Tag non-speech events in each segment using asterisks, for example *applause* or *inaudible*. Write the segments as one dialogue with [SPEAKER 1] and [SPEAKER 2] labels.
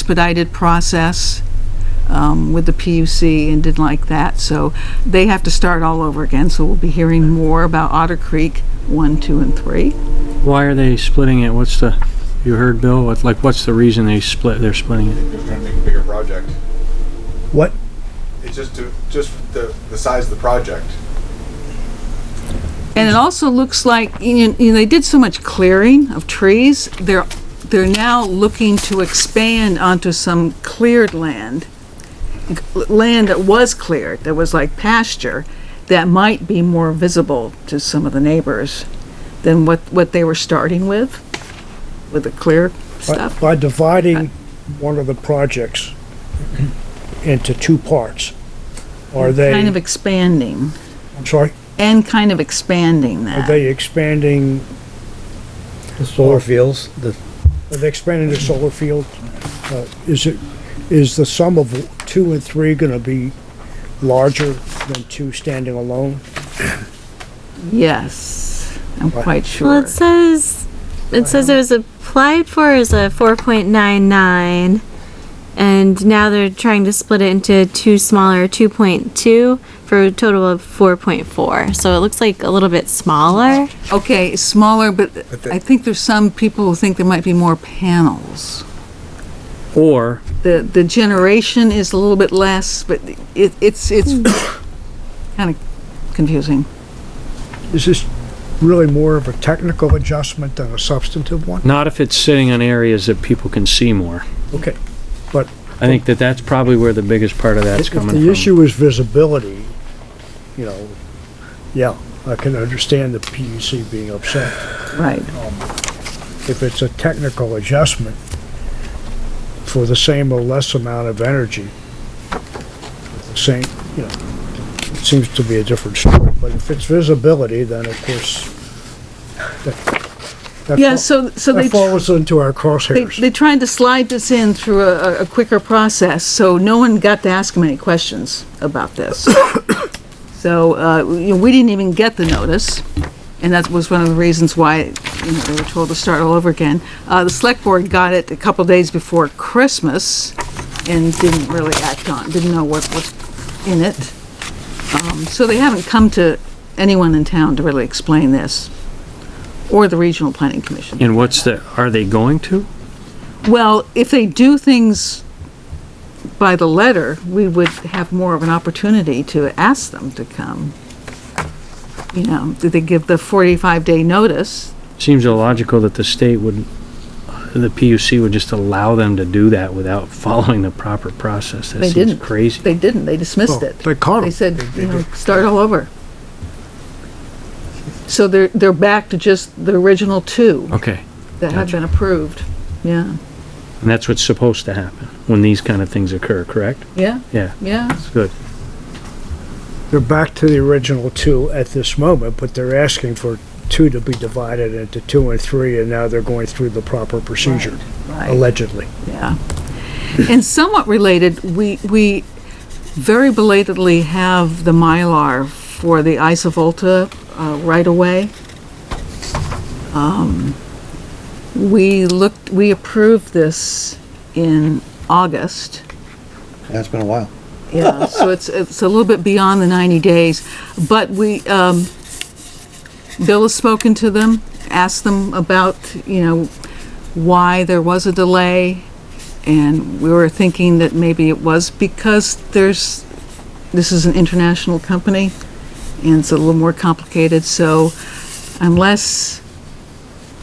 [SPEAKER 1] expedited process um, with the PUC and didn't like that, so they have to start all over again, so we'll be hearing more about Otter Creek 1, 2, and 3.
[SPEAKER 2] Why are they splitting it? What's the, you heard Bill, what, like, what's the reason they split, they're splitting it?
[SPEAKER 3] They're trying to make a bigger project.
[SPEAKER 4] What?
[SPEAKER 3] It's just to, just the, the size of the project.
[SPEAKER 1] And it also looks like, you know, they did so much clearing of trees, they're, they're now looking to expand onto some cleared land. Land that was cleared, that was like pasture, that might be more visible to some of the neighbors than what, what they were starting with, with the clear
[SPEAKER 4] By-
[SPEAKER 1] stuff.
[SPEAKER 4] By dividing one of the projects into two parts, are they,
[SPEAKER 1] Kind of expanding,
[SPEAKER 4] I'm sorry,
[SPEAKER 1] and kind of expanding
[SPEAKER 4] are
[SPEAKER 1] that.
[SPEAKER 4] they expanding,
[SPEAKER 5] The solar fields, the,
[SPEAKER 4] are they expanding the solar field? Uh, Is it, is the sum of two and three gonna be larger than two standing alone?
[SPEAKER 1] Yes, I'm quite sure.
[SPEAKER 6] Well, it says it says it was applied for as a 4.99, and now they're trying to split it into two smaller 2.2 for a total of 4.4. So it looks like a little bit smaller.
[SPEAKER 1] Okay, it's smaller, but I think there's some people who think there might be more panels.
[SPEAKER 2] Or,
[SPEAKER 1] The, the generation is a little bit less, but it, it's, it's *coughs* kind of confusing.
[SPEAKER 4] Is this really more of a technical adjustment than a substantive one?
[SPEAKER 2] not if it's sitting on areas that people can see more.
[SPEAKER 4] Okay.
[SPEAKER 2] I think that that's probably where the biggest part of that's
[SPEAKER 4] If
[SPEAKER 2] coming
[SPEAKER 4] the
[SPEAKER 2] from.
[SPEAKER 4] issue is visibility, you know, yeah, I can understand the PUC being upset.
[SPEAKER 1] Right.
[SPEAKER 4] if it's a technical adjustment for the same or less amount of energy, same, you know, it seems to be a different story, but if it's visibility, then of course, that, that
[SPEAKER 1] Yeah,
[SPEAKER 4] fal-
[SPEAKER 1] so, so they.
[SPEAKER 4] that falls into our
[SPEAKER 1] They,
[SPEAKER 4] crosshairs.
[SPEAKER 1] they tried to slide this in through a, a- a quicker process, so no one got to ask them any questions about this. *coughs* So, uh, you know, we didn't even get the notice, and that was one of the reasons why, you know, they were told to start all over again. Uh, the select board got it a couple days before Christmas and didn't really act on, didn't know what was in it. Um, so they haven't come to anyone in town to really explain this, or the regional planning commission.
[SPEAKER 2] And what's the, are they going to?
[SPEAKER 1] Well, if they do things by the letter, we would have more of an opportunity to ask them to come. You know, did they give the 45-day notice?
[SPEAKER 2] Seems illogical that the state would, the PUC would just allow them to do that without *laughs* following the proper process. That
[SPEAKER 1] They
[SPEAKER 2] seems
[SPEAKER 1] didn't.
[SPEAKER 2] crazy.
[SPEAKER 1] They didn't, they dismissed
[SPEAKER 4] Well,
[SPEAKER 1] it.
[SPEAKER 4] They caught
[SPEAKER 1] They
[SPEAKER 4] them.
[SPEAKER 1] said, you know, start all over. So they're, they're back to just the original two
[SPEAKER 2] Okay,
[SPEAKER 1] that had
[SPEAKER 2] Oh, Gotcha.
[SPEAKER 1] been approved. Yeah,
[SPEAKER 2] and that's what's supposed to happen when these kind of things occur, correct?
[SPEAKER 1] yeah,
[SPEAKER 2] Yeah,
[SPEAKER 1] yeah.
[SPEAKER 2] it's good.
[SPEAKER 4] They're back to the original two at this moment, but they're asking for two to be divided into two and three, and now they're going through the proper procedure,
[SPEAKER 1] Right.
[SPEAKER 4] allegedly.
[SPEAKER 1] Yeah. And somewhat related, we, we very belatedly have the Mylar for the Isovolta uh, right away. Um, We looked, we approved this in August.
[SPEAKER 5] that's been a while.
[SPEAKER 1] Yeah, so it's, it's a little bit beyond the 90 days, but we, um, Bill has spoken to them, asked them about, you know, why there was a delay, and we were thinking that maybe it was because there's, this is an international company, and it's a little more complicated, so unless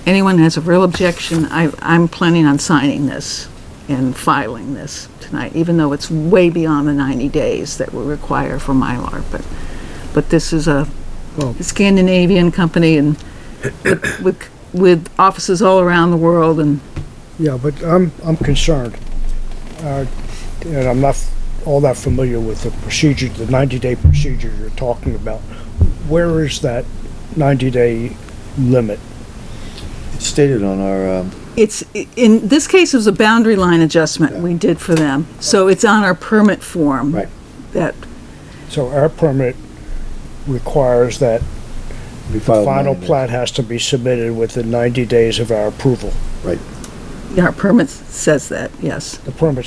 [SPEAKER 1] anyone has a real objection, I, I'm planning on signing this and filing this tonight, even though it's way beyond the 90 days that we require for Mylar, but, but this is a
[SPEAKER 4] Well-
[SPEAKER 1] Scandinavian company and with, with offices all around the world and
[SPEAKER 4] Yeah, but I'm, I'm concerned, uh, and I'm not f- all that familiar with the procedure, the 90-day procedure you're talking about. Where is that 90-day limit?
[SPEAKER 5] It's stated on our, um,
[SPEAKER 1] It's, in this case, it was a boundary line adjustment we did for them, so it's on our permit form.
[SPEAKER 5] Right.
[SPEAKER 1] That,
[SPEAKER 4] So our permit requires that the
[SPEAKER 5] we filed.
[SPEAKER 4] final
[SPEAKER 5] mine.
[SPEAKER 4] plat has to be submitted within 90 days of our approval.
[SPEAKER 5] Right.
[SPEAKER 7] our permit says that, yes.
[SPEAKER 1] The permit